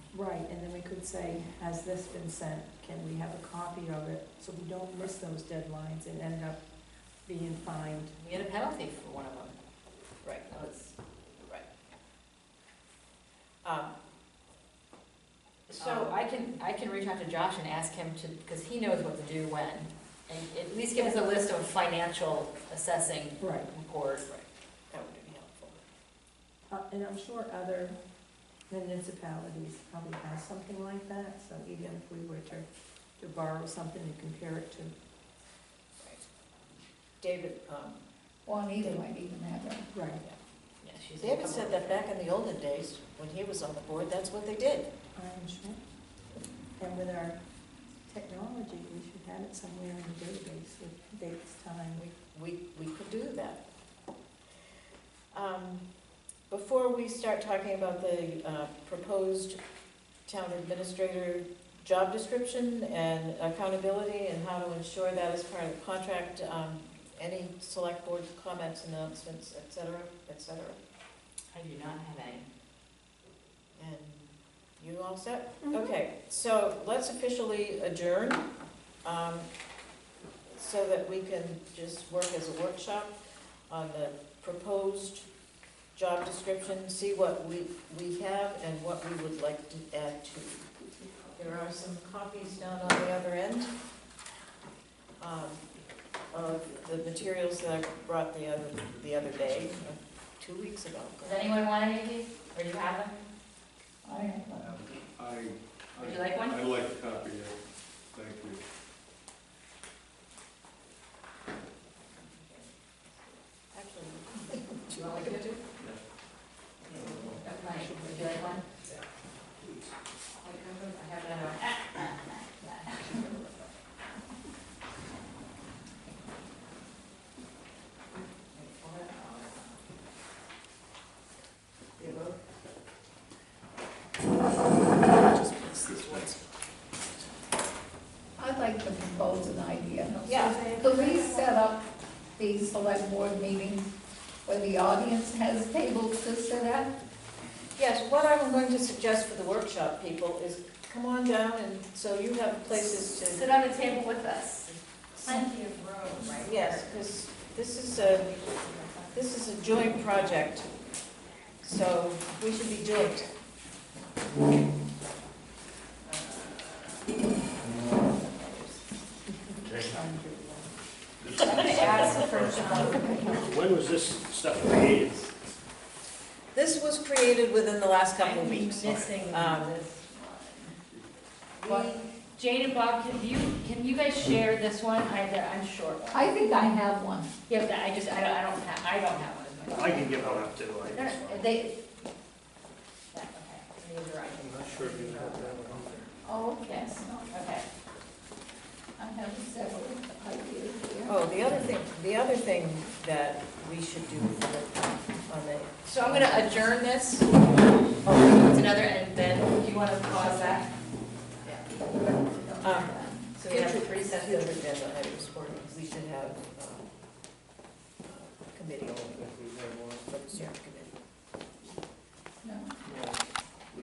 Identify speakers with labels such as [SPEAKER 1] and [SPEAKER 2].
[SPEAKER 1] Right, and then we could say, has this been sent? Can we have a copy of it? So we don't miss those deadlines and end up being fined.
[SPEAKER 2] We had a penalty for one of them. Right, that was, right. Um, So I can, I can reach out to Josh and ask him to, because he knows what to do when. And at least give us a list of financial assessing
[SPEAKER 1] Right.
[SPEAKER 2] reports. Right. That would be helpful.
[SPEAKER 1] Uh, And I'm sure other municipalities probably have something like that, so even if we were to, to borrow something and compare it to.
[SPEAKER 2] David, um,
[SPEAKER 3] Juanita might even have that.
[SPEAKER 1] Right.
[SPEAKER 2] yeah, she's.
[SPEAKER 4] David said that back in the olden days, when he was on the board, that's what they did.
[SPEAKER 1] I'm sure. And with our technology, we should have it somewhere in the database with dates, time.
[SPEAKER 4] We, we, we could do that. Um, Before we start talking about the uh, proposed town administrator job description and accountability and how to ensure that as part of the contract, um, any select board comments, announcements, et cetera, et cetera.
[SPEAKER 2] I do not have any.
[SPEAKER 4] And you all set?
[SPEAKER 3] Mm-hmm.
[SPEAKER 4] Okay, so let's officially adjourn, um, so that we can just work as a workshop on the proposed job description, see what we, we have and what we would like to add to. There are some copies down on the other end, um, of the materials that I brought the other, the other day, uh, two weeks ago.
[SPEAKER 2] Does anyone want any of these? Or do you have them?
[SPEAKER 3] I have that.
[SPEAKER 5] Um, I,
[SPEAKER 2] Would
[SPEAKER 5] I,
[SPEAKER 2] you like one?
[SPEAKER 5] I'd like a copy of, it. thank you.
[SPEAKER 4] Actually,
[SPEAKER 2] Do you want me to do? Okay, would you like one? I have another one.
[SPEAKER 3] I'd like to propose an idea.
[SPEAKER 4] Yeah.
[SPEAKER 3] Could we set up these select board meetings where the audience has tables to sit at?
[SPEAKER 4] Yes, what I'm going to suggest for the workshop people is come on down and so you have places to,
[SPEAKER 2] Sit on the table with us.
[SPEAKER 3] Plenty
[SPEAKER 2] of room, right?
[SPEAKER 4] yes, because this is a, this is a joint project. So we should be joint.
[SPEAKER 6] When was this stuff created?
[SPEAKER 4] This was created within the last couple of weeks.
[SPEAKER 2] Missing
[SPEAKER 4] Um,
[SPEAKER 2] this
[SPEAKER 4] We-
[SPEAKER 2] one. Jane and Bob, can you, can you guys share this one? I, I'm short. one.
[SPEAKER 3] I think I have one.
[SPEAKER 2] Yeah, but I just, I don't, I don't have, I don't have one. as much.
[SPEAKER 6] I can give one up too, I
[SPEAKER 2] No,
[SPEAKER 6] guess.
[SPEAKER 2] no, They. that, okay, these are right.
[SPEAKER 6] I'm not sure if you have that one on there.
[SPEAKER 3] Oh, okay. No,
[SPEAKER 2] Okay.
[SPEAKER 3] I have several ideas here.
[SPEAKER 4] Oh, the other thing, the other thing that we should do for the- on the,
[SPEAKER 2] So I'm gonna adjourn this.
[SPEAKER 4] oh,
[SPEAKER 2] It's another, and then, do you wanna pause that?
[SPEAKER 4] um,
[SPEAKER 2] So we have
[SPEAKER 4] Future-
[SPEAKER 2] three sets
[SPEAKER 4] Future
[SPEAKER 2] of.
[SPEAKER 4] agenda items for, we should have um, uh, committee, over,
[SPEAKER 6] If we have one.
[SPEAKER 4] let's start committee.